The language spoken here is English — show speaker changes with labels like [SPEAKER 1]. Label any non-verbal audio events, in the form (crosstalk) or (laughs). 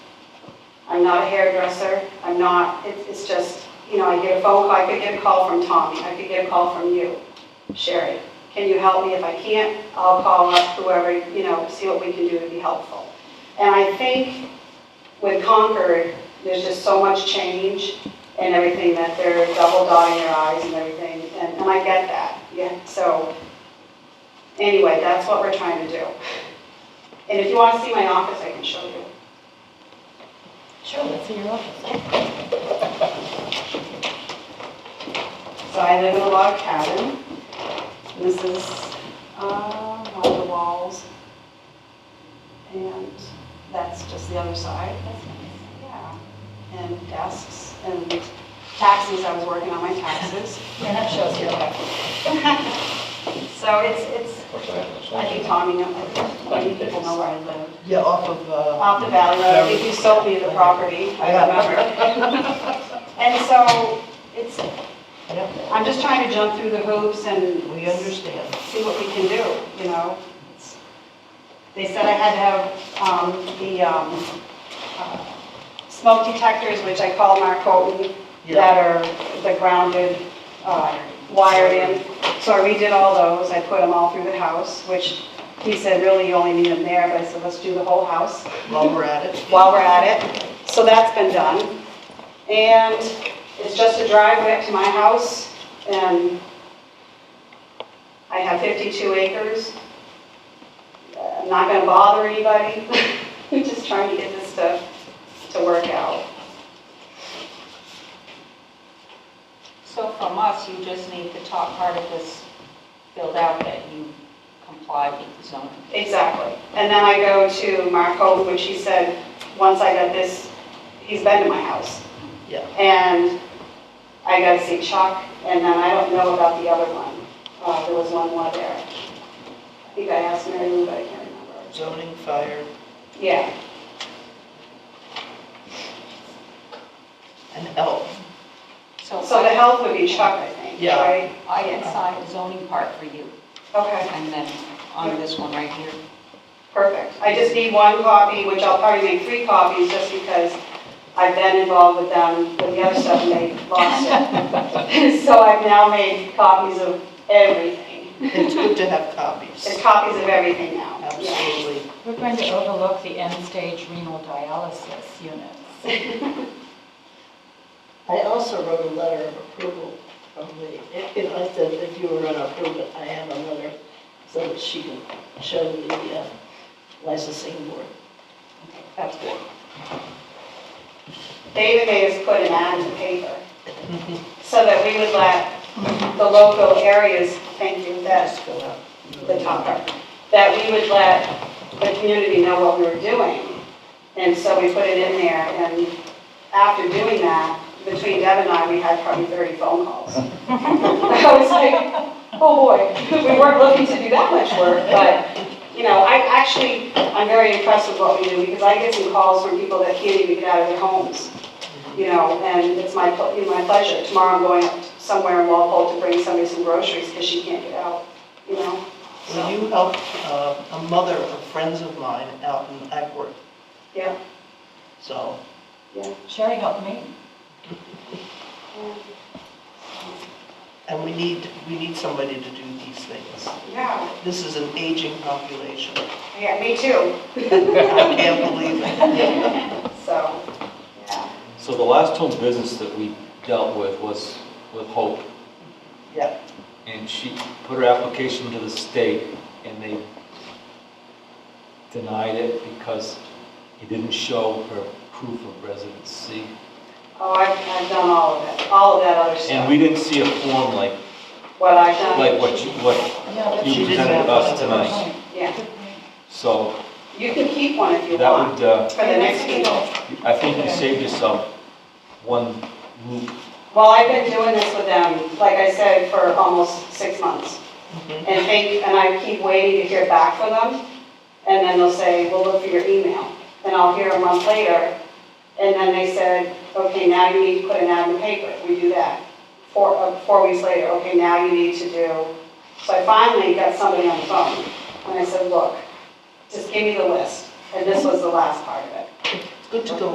[SPEAKER 1] I'm not a hairdresser, I'm not, it's, it's just, you know, I get a phone call, I could get a call from Tommy, I could get a call from you, Sherry. Can you help me? If I can't, I'll call up whoever, you know, see what we can do to be helpful. And I think with Concord, there's just so much change and everything that they're double dotting their i's and everything, and, and I get that, yeah, so. Anyway, that's what we're trying to do. And if you want to see my office, I can show you.
[SPEAKER 2] Sure, let's see your office.
[SPEAKER 1] So I live in a log cabin. This is, uh, one of the walls. And that's just the other side. That's nice. Yeah. And desks and taxes, I was working on my taxes.
[SPEAKER 2] Yeah, that shows your
[SPEAKER 1] (laughs)
[SPEAKER 2] office.
[SPEAKER 1] So it's, it's, I think Tommy, knows- I think people know where I live.
[SPEAKER 3] Yeah, off of, uh,
[SPEAKER 1] off the Valley Road, if you sold me the property, I remember.
[SPEAKER 2] (laughs)
[SPEAKER 1] And so, it's,
[SPEAKER 3] yeah,
[SPEAKER 1] I'm just trying to jump through the hoops and
[SPEAKER 3] we understand.
[SPEAKER 1] see what we can do, you know? It's- They said I had to have um, the um, uh, smoke detectors, which I call narcotin, that are the grounded, uh, wired in. So I redid all those, I put them all through the house, which he said, really, you only need them there, but I said, let's do the whole house
[SPEAKER 3] While we're at it.
[SPEAKER 1] while we're at it. So that's been done. And it's just a drive back to my house and I have 52 acres. I'm not going to bother anybody. (laughs) I'm just trying to get this stuff to work out.
[SPEAKER 2] So from us, you just need the top part of this filled out that you comply with the zoning.
[SPEAKER 1] Exactly. And then I go to Mark Hope, which he said, once I got this, he's been to my house.
[SPEAKER 3] Yeah.
[SPEAKER 1] And I got to see Chuck, and then I don't know about the other one. Uh, There was one more there. I think I asked Mary Lou, but I can't remember.
[SPEAKER 3] Zoning, fire,
[SPEAKER 1] Yeah,
[SPEAKER 3] and health.
[SPEAKER 2] So
[SPEAKER 1] so the health would be Chuck, I think,
[SPEAKER 3] Yeah.
[SPEAKER 1] right?
[SPEAKER 2] I can sign the zoning part for you,
[SPEAKER 1] Okay,
[SPEAKER 2] and then on this one right here.
[SPEAKER 1] perfect. I just need one copy, which I'll probably make three copies, just because I've been involved with them, with the other stuff, and they lost it. So I've now made copies of everything.
[SPEAKER 3] It's good to have copies.
[SPEAKER 1] There's copies of everything now. Yeah.
[SPEAKER 3] Absolutely.
[SPEAKER 4] We're going to overlook the end-stage renal dialysis units.
[SPEAKER 5] I also wrote a letter of approval from the, if I said if you were gonna approve it, I have a letter so that she can show the uh, licensing board.
[SPEAKER 2] That's good.
[SPEAKER 1] David made us put an ad in the paper so that we would let the local areas, thank you, that's
[SPEAKER 3] Just go out.
[SPEAKER 1] the top part, that we would let the community know what we were doing. And so we put it in there, and after doing that, between Deb and I, we had probably 30 phone calls. (laughs) I was like, oh boy, we weren't looking to do that much work, but, you know, I actually, I'm very impressed with what we do, because I get some calls from people that can't even get out of their homes, you know, and it's my, ple- you know, my pleasure. Tomorrow I'm going up somewhere in Walpole to bring somebody some groceries, because she can't get out, you know?
[SPEAKER 3] Will you help uh, a mother of friends of mine out in Ackworth?
[SPEAKER 1] Yeah.
[SPEAKER 3] So,
[SPEAKER 4] Sherry helped me.
[SPEAKER 3] and we need, we need somebody to do these things.
[SPEAKER 1] Yeah,
[SPEAKER 3] This is an aging population.
[SPEAKER 1] yeah, me too,
[SPEAKER 3] I can't believe
[SPEAKER 1] (laughs)
[SPEAKER 3] it.
[SPEAKER 1] so, yeah.
[SPEAKER 6] So the last home business that we dealt with was with Hope.
[SPEAKER 3] Yeah.
[SPEAKER 6] And she put her application to the state and they denied it because it didn't show her proof of residency.
[SPEAKER 1] Oh, I've, I've done all of it, all of that other
[SPEAKER 6] And
[SPEAKER 1] stuff,
[SPEAKER 6] we didn't see a form like,
[SPEAKER 1] what I've done.
[SPEAKER 6] like what you, what,
[SPEAKER 4] Yeah, that's
[SPEAKER 6] You
[SPEAKER 3] She didn't
[SPEAKER 6] presented
[SPEAKER 3] have
[SPEAKER 6] us
[SPEAKER 3] one of those.
[SPEAKER 6] tonight.
[SPEAKER 4] right.
[SPEAKER 1] Yeah,
[SPEAKER 6] so
[SPEAKER 1] you can keep one if you
[SPEAKER 6] that
[SPEAKER 1] want,
[SPEAKER 6] would, uh,
[SPEAKER 1] for the next meeting.
[SPEAKER 6] I think you saved yourself one loop.
[SPEAKER 1] Well, I've been doing this with them, like I said, for almost six months.
[SPEAKER 3] Mhm.
[SPEAKER 1] And think, and I keep waiting to hear back from them, and then they'll say, we'll look for your email. And I'll hear a month later, and then they said, okay, now you need to put an ad in the paper, we do that. Four, uh, four weeks later, okay, now you need to do, so I finally got somebody on the phone, and I said, look, just give me the list, and this was the last part of it.
[SPEAKER 3] It's Good to go